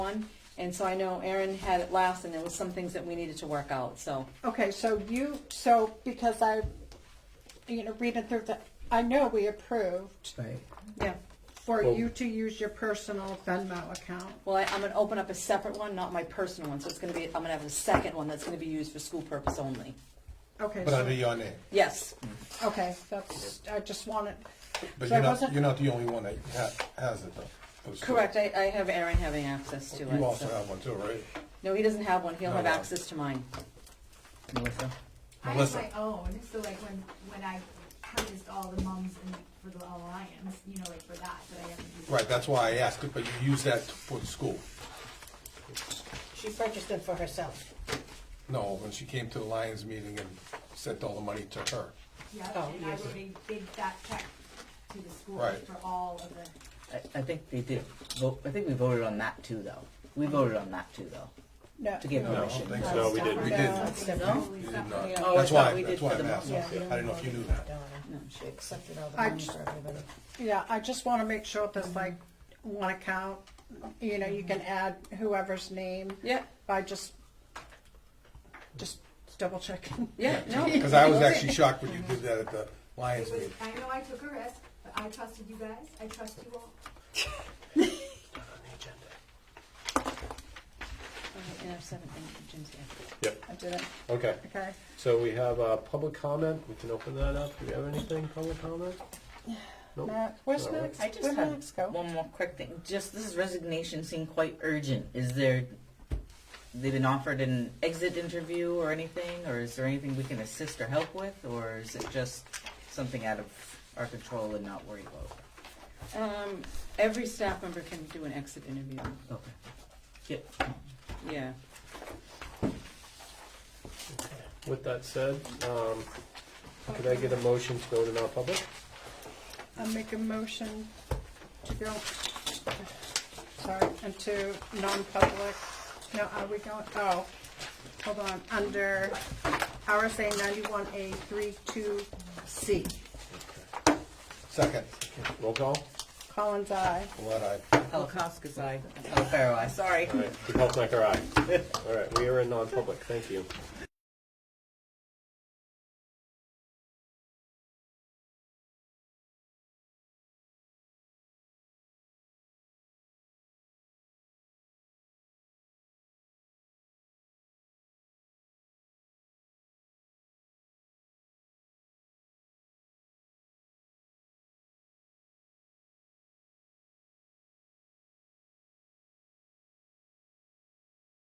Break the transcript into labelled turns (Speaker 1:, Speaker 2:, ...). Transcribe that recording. Speaker 1: on. And so I know Erin had it last and there was some things that we needed to work out, so.
Speaker 2: Okay, so you, so because I, you know, reading through the, I know we approved
Speaker 3: Right.
Speaker 1: Yeah.
Speaker 2: for
Speaker 3: Well-
Speaker 2: you to use your personal Venmo account.
Speaker 1: Well, I, I'm gonna open up a separate one, not my personal one, so it's gonna be, I'm gonna have a second one that's gonna be used for school purpose only.
Speaker 2: Okay,
Speaker 4: But under
Speaker 2: so,
Speaker 4: your name,
Speaker 1: Yes,
Speaker 2: okay, that's, I just wanted,
Speaker 4: but
Speaker 2: So it
Speaker 4: you're not,
Speaker 2: wasn't-
Speaker 4: you're not the only one that ha- has it though. for sure.
Speaker 1: correct, I, I have Erin having access to it.
Speaker 4: You also
Speaker 1: so-
Speaker 4: have one too, right?
Speaker 1: No, he doesn't have one, he'll
Speaker 4: No,
Speaker 1: have
Speaker 4: no.
Speaker 1: access to mine.
Speaker 3: Melissa?
Speaker 5: I have
Speaker 4: Melissa.
Speaker 5: my own, so like when, when I purchased all the mums and for the alliance, you know, like for that, that I haven't used.
Speaker 4: Right, that's why I asked it, but you use that for the school.
Speaker 6: She purchased them for herself.
Speaker 4: No, when she came to the Lions meeting and sent all the money to her.
Speaker 5: Yeah,
Speaker 6: Oh,
Speaker 5: and I
Speaker 6: yes.
Speaker 5: would big, big that check to the school
Speaker 4: Right.
Speaker 5: for all of the,
Speaker 3: I, I think they did, vote I think we voted on that too, though. We voted on that too, though,
Speaker 2: no.
Speaker 3: to give
Speaker 4: No, I don't
Speaker 3: permission.
Speaker 4: think
Speaker 7: No, we didn't.
Speaker 4: We
Speaker 2: No.
Speaker 4: didn't.
Speaker 2: That's
Speaker 6: different.
Speaker 4: You
Speaker 5: totally
Speaker 4: did
Speaker 5: separate.
Speaker 4: not.
Speaker 3: Oh, I
Speaker 4: That's
Speaker 3: thought
Speaker 4: why,
Speaker 3: we
Speaker 4: that's
Speaker 3: did
Speaker 4: why
Speaker 3: for
Speaker 4: I'm
Speaker 3: the
Speaker 4: asking.
Speaker 3: mom.
Speaker 4: I didn't know if you knew that.
Speaker 6: No, she accepted all the
Speaker 2: I
Speaker 6: money
Speaker 2: j-
Speaker 6: for everybody.
Speaker 2: Yeah, I just want to make sure there's like one account, you know, you can add whoever's name.
Speaker 1: Yeah,
Speaker 2: I just, just double checking.
Speaker 1: yeah, no.
Speaker 4: Because I was actually shocked when you did that at the Lions
Speaker 5: It was,
Speaker 4: meeting.
Speaker 5: I know I took a risk, but I trusted you guys, I trust you all.
Speaker 1: Okay, and I've seven, and Jim's here.
Speaker 7: Yep,
Speaker 2: I did it,
Speaker 7: okay.
Speaker 2: okay.
Speaker 7: So we have uh, public comment. We can open that up. Do we have anything, public comment? Nope.
Speaker 2: Matt, where's
Speaker 7: All right.
Speaker 2: Max?
Speaker 3: I just
Speaker 2: Where'd
Speaker 3: have
Speaker 2: Max go?
Speaker 3: one more quick thing. Just this resignation seemed quite urgent. Is there, they've been offered an exit interview or anything, or is there anything we can assist or help with, or is it just something out of our control and not worry about?
Speaker 1: Um, every staff member can do an exit interview,
Speaker 3: Okay. Yep.
Speaker 1: yeah.
Speaker 7: With that said, um, could I get a motion to go to non-public?
Speaker 2: I'll make a motion to go, sorry, into non-public. No, are we going, oh, hold on, under RSA ninety-one A three two C.
Speaker 4: Second,
Speaker 7: Roll call.
Speaker 2: Collins, aye.
Speaker 4: what I,
Speaker 3: Holocaust, I. Oh, Pharaoh, I. Sorry.
Speaker 7: All right. Health Necker, aye. All right, we are in non-public. Thank you.